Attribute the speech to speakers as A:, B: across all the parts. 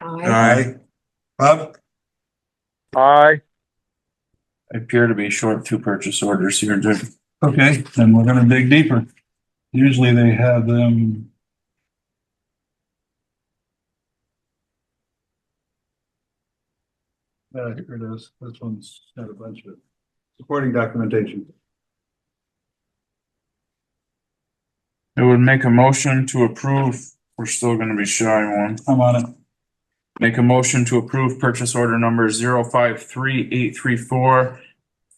A: Aye. Bob?
B: Aye.
C: I appear to be short two purchase orders here, Dick. Okay, then we're gonna dig deeper. Usually they have them. Uh, here it is. This one's got a bunch of supporting documentation.
D: It would make a motion to approve, we're still gonna be shy one.
C: I'm on it.
D: Make a motion to approve purchase order number zero five three eight three four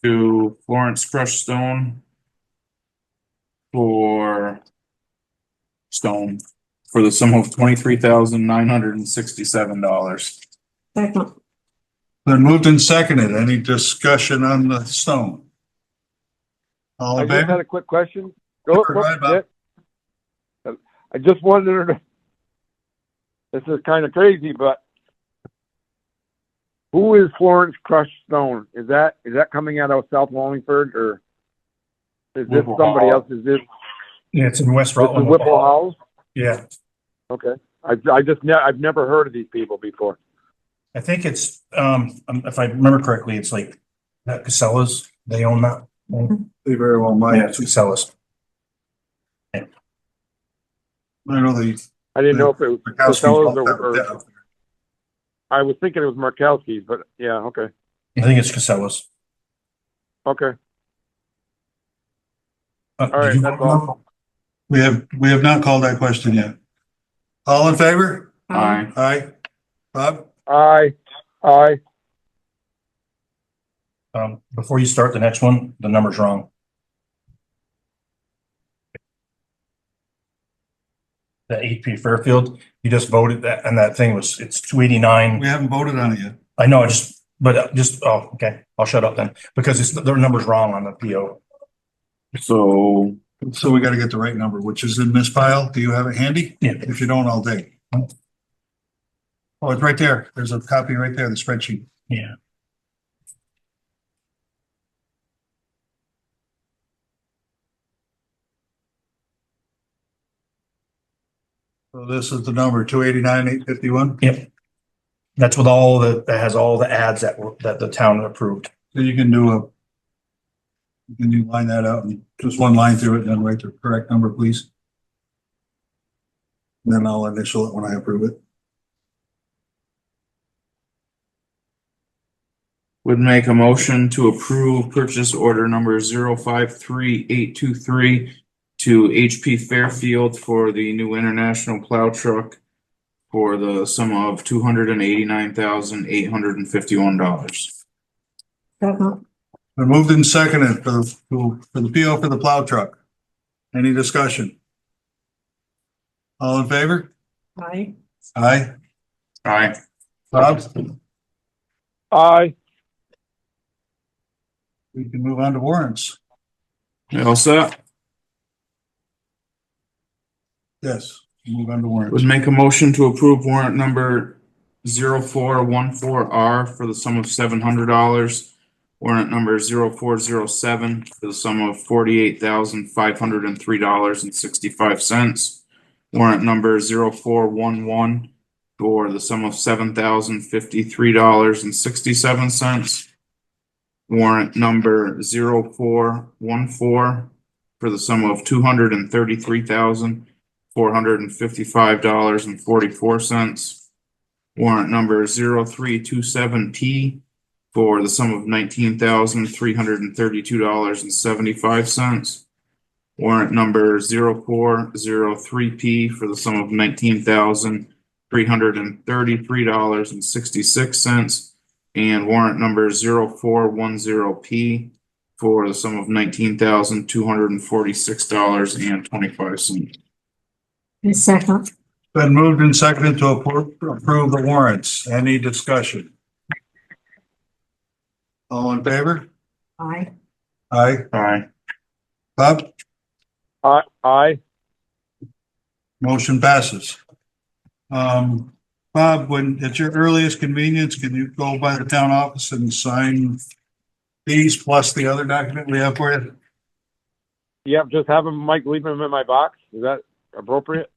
D: to Florence Crush Stone for stone for the sum of twenty-three thousand nine hundred and sixty-seven dollars.
A: Second.
C: Then moved and seconded. Any discussion on the stone? All
B: I
C: in
B: just
C: favor?
B: had a quick question. Go,
C: Sure,
B: go,
C: go ahead, Bob.
B: Nick. I just wondered, this is kind of crazy, but who is Florence Crush Stone? Is that, is that coming out of South Wallingford or is this
D: Whipple
B: somebody
D: Hall.
B: else? Is this,
E: Yeah, it's in West
B: this is
E: Rutland.
B: Whipple House?
E: Yeah,
B: Okay. I, I just, ne- I've never heard of these people before.
E: I think it's, um, um, if I remember correctly, it's like, not Casellas, they own that. Oh,
C: They very well might.
E: Yeah, it's Casellas.
C: I know the.
B: I didn't know if it was
C: the Kowskis
B: Casellas
C: bought
B: or,
C: that
B: or,
C: up there.
B: I was thinking it was Markowski's, but yeah, okay,
E: I think it's Casellas.
B: okay.
E: Uh,
B: All
E: did
B: right,
E: you
B: that's
E: want to-
B: all.
C: We have, we have not called that question yet. All in favor?
D: Aye.
C: Aye. Bob?
B: Aye, aye.
E: Um, before you start the next one, the number's wrong. The HP Fairfield, you just voted that, and that thing was, it's two eighty-nine.
C: We haven't voted on it yet.
E: I know, I just, but uh, just, oh, okay, I'll shut up then, because it's, their number's wrong on the PO.
D: So
C: So we gotta get the right number, which is in this file. Do you have it handy?
E: Yeah.
C: If you don't, I'll dig. Oh, it's right there. There's a copy right there, the spreadsheet.
E: Yeah.
C: So this is the number, two eighty-nine, eight fifty-one.
E: That's with all the, that has all the ads that were, that the town approved.
C: So you can do a can you line that out and just one line through it and then write the correct number, please? And Then I'll initial it when I approve it.
D: would make a motion to approve purchase order number zero five three eight two three to HP Fairfield for the new international plow truck for the sum of two hundred and eighty-nine thousand eight hundred and fifty-one dollars.
A: Second.
C: Been moved and seconded for the, for the PO for the plow truck. Any discussion? All in favor?
A: Aye.
C: Aye.
D: Aye.
C: Bob?
B: Aye,
C: We can move on to warrants.
D: You all set?
C: Yes, move on to
D: Would
C: warrants.
D: make a motion to approve warrant number zero four one four R for the sum of seven hundred dollars. Warrant number zero four zero seven for the sum of forty-eight thousand five hundred and three dollars and sixty-five cents. Warrant number zero four one one for the sum of seven thousand fifty-three dollars and sixty-seven cents. Warrant number zero four one four for the sum of two hundred and thirty-three thousand four hundred and fifty-five dollars and forty-four cents. Warrant number zero three two seven P for the sum of nineteen thousand three hundred and thirty-two dollars and seventy-five cents. Warrant number zero four zero three P for the sum of nineteen thousand three hundred and thirty-three dollars and sixty-six cents. And warrant number zero four one zero P for the sum of nineteen thousand two hundred and forty-six dollars and twenty-five cents.
A: And second.
C: Been moved and seconded to appro- approve the warrants. Any discussion? All in favor?
A: Aye.
C: Aye.
D: Aye.
C: Bob?
B: aye, aye.
C: Motion passes. Um, Bob, when, at your earliest convenience, can you go by the town office and sign these plus the other document we have for you?
B: Yep, just have him, Mike, leave him in my box. Is that appropriate?